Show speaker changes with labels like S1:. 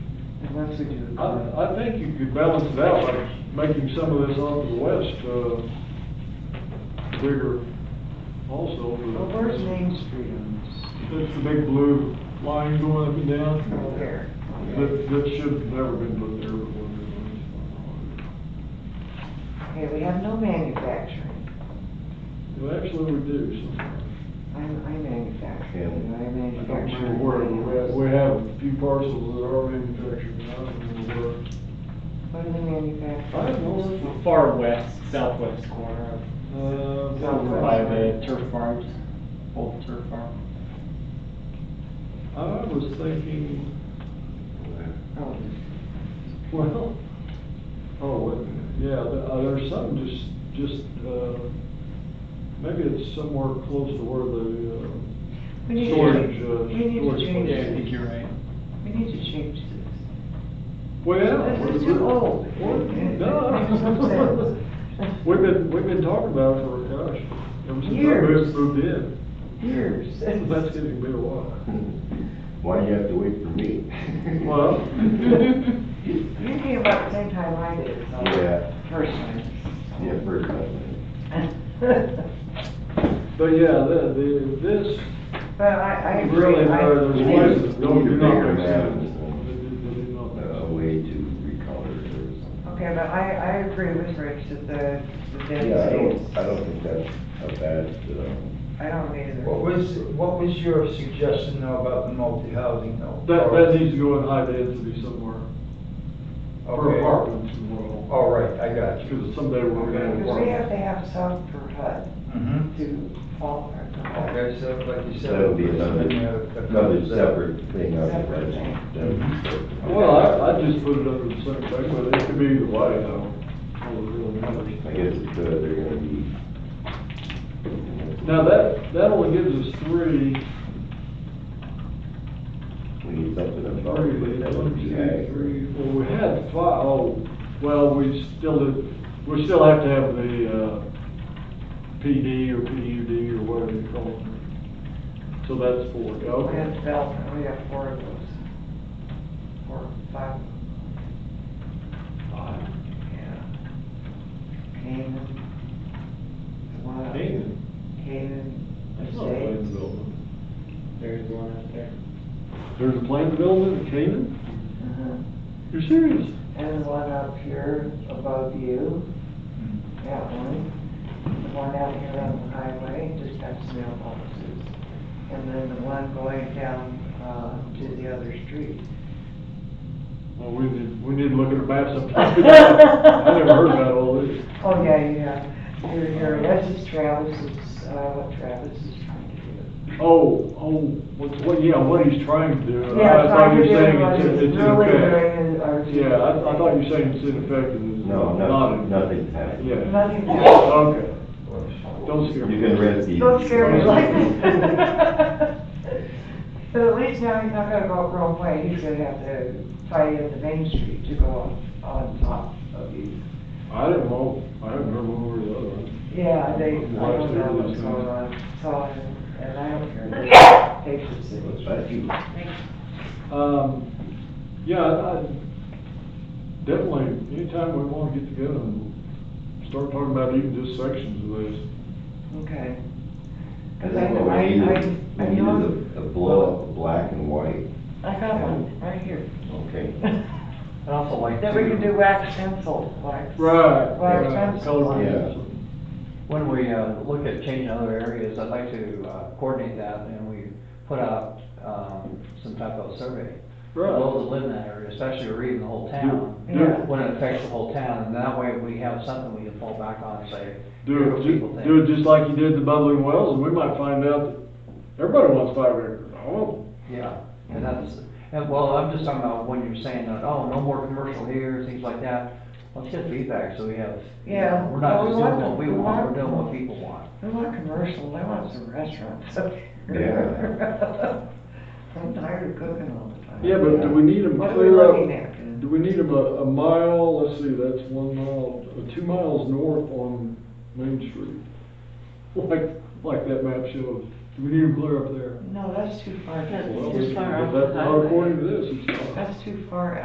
S1: let's see. if-
S2: I, I think you could balance it out by making some of this off to the west, uh, bigger also. for the-
S1: Well, where's Main Street on
S2: That's the big blue line going up and
S1: this? Over
S2: down.
S1: there.
S2: That, that should have never been put there before.
S1: Okay, we have no manufacturing.
S2: Well, actually, we do sometimes.
S1: I'm, I manufacture,
S3: Yeah.
S1: and I
S2: I
S1: manufacture.
S2: don't remember where, we have- we have a few parcels that are manufactured, but I don't remember where.
S1: What do they manufacture?
S2: I don't know.
S4: Far west, southwest corner
S2: Uh,
S4: of,
S1: Southwest.
S4: over by the turf farms, old turf farm.
S2: Uh, I was thinking,
S1: Oh,
S2: well, oh, yeah, th- uh, there's some just, just, uh, maybe it's somewhere close to where the, uh,
S1: We need to-
S2: Storage, uh,
S1: We need to
S2: storage
S1: change
S2: place.
S4: Yeah, I
S1: this.
S4: think you're right.
S1: We need to change this.
S2: well.
S1: This is too old. It-
S2: Well,
S1: it makes no
S2: Duh.
S1: sense.
S2: We've been, we've been talking about it for, gosh, ever since I
S1: Years.
S2: moved, moved in.
S1: Years.
S2: That's getting to be a while.
S3: Why you have to wait for me?
S2: Well.
S1: You came about the same time I did, so.
S3: Yeah.
S1: Personally.
S3: Yeah, first time.
S2: But yeah, the, the, this,
S1: But I, I agree.
S2: really,
S1: I-
S2: there- there's places that don't, do not
S3: Bigger
S2: make sense.
S3: than-
S2: They do- they do not make sense.
S3: A way to recolor it or something.
S1: Okay, but I, I agree with Rich that the, the
S3: Yeah, I
S1: density is.
S3: don't, I don't think that's a bad, um,
S1: I don't either.
S5: What was, what was your suggestion now about the multi-housing though?
S2: That, that needs to go in high density somewhere, or
S5: Okay.
S2: apartments tomorrow,
S5: All right, I got you.
S2: because someday we're gonna have
S1: Because we have
S2: apartments.
S1: to have some per HUD
S5: Mhm.
S1: to qualify.
S5: Okay, so like you said.
S3: that'll be
S5: it's
S3: another,
S5: been a- a
S3: another separate thing. on the
S1: Separate
S3: budget.
S1: thing.
S3: That'll be separate.
S2: Mm-hmm. Well, I, I just put it under the same thing, but it could be either way, though. All it really matters.
S3: I guess it's, uh, they're gonna be.
S2: Now, that, that only gives us three,
S3: We need something about it,
S2: three,
S3: but that
S2: one,
S3: would be ag.
S2: two, three, well, we had five, oh, well, we still, did- we still have to have the, uh, PD or PUD or whatever you call it. So that's four,
S1: We have
S2: okay.
S1: development, we have four of those. Four, five, yeah. Canaan. Wow.
S2: Damon.
S1: Canaan.
S2: That's not a planned
S1: Mercedes.
S2: development.
S4: There is one out there.
S2: There's a planned development in Canaan?
S1: Uh-huh.
S2: You're serious?
S1: And one up here above you,
S5: Mhm.
S1: that one. The one out here on the highway, just past the mailboxes. And then the one going down, uh, to the other street.
S2: Well, we need, we need to look at a map sometime. I never heard about all this.
S1: Oh, yeah, yeah. You're, you're, this is Travis's, uh, what Travis is trying to do.
S2: Oh, oh, what, what, yeah, what he's trying to do. Oh, I
S1: Yeah,
S2: thought
S1: trying
S2: you
S1: to
S2: were
S1: do
S2: saying
S1: what
S2: it's in-
S1: he's
S2: it's in
S1: really
S2: effect.
S1: doing is- are-
S2: Yeah, I, I thought you were saying it's ineffective, it's
S3: No,
S2: not.
S3: nothing, nothing's happening.
S2: Yeah.
S1: Nothing.
S2: Okay, don't
S3: You
S2: scare me.
S3: can rest easy.
S1: Don't scare me like
S2: that.
S1: that. But at least now he's not gonna go up wrong way, he's gonna have to tie in the main street to go on, on top of you.
S2: I didn't know, I haven't heard one over the other one.
S1: Yeah, they, I don't
S2: Why is there
S1: know what's
S2: this?
S1: going on, so, and I don't care. They should see.
S3: What's that you?
S2: Um, yeah, I, I- definitely, anytime we wanna get together and start talking about even just sections of this.
S1: Okay.
S3: I
S1: Cause I,
S3: think what
S1: I,
S3: we need
S1: I,
S3: is, we
S1: I
S3: need
S1: know,
S3: is a, a blow up, black and white,
S1: I got one right here.
S3: okay?
S4: I'd also like
S1: Then we can do
S4: to,
S1: wax pencil, wax.
S2: Right.
S1: Right,
S2: right,
S1: that's-
S2: Color
S3: Yeah.
S2: pencil.
S6: When we uh, look at changing other areas, I'd like to uh, coordinate that and we put out um, some type of survey. For
S2: Right.
S6: Those that live in that area, especially or even the whole town,
S2: Do it,
S6: when it affects the whole town. And that way we have something we can fall back on and say,
S2: do
S6: Here's
S2: it,
S6: what
S2: ju-
S6: people think.
S2: do it just like you did the bubbling wells, and we might find out that everybody wants five acres. Oh,
S6: yeah. And that's, and well, I'm just talking about when you're saying that, oh, no more commercial here, things like that. Let's get feedback so we have, you
S1: Yeah.
S6: know, we're not
S1: Well, we
S6: just doing
S1: want
S6: what we
S1: them- we
S6: want,
S1: want
S6: we're doing what
S1: them.
S6: people want.
S1: I want commercial, I want some restaurants.
S3: Yeah.
S1: I'm tired of cooking all the time.
S2: yeah, but do we need them
S1: What are we
S2: clear
S1: looking
S2: up?
S1: at?
S2: Do we need them a, a mile, let's see, that's one mile, uh, two miles north on Main Street? Like, like that map shows. Do we need them clear up there?
S1: No, that's too far.
S2: Well, we- That's not according to this, it's not.
S1: That's too far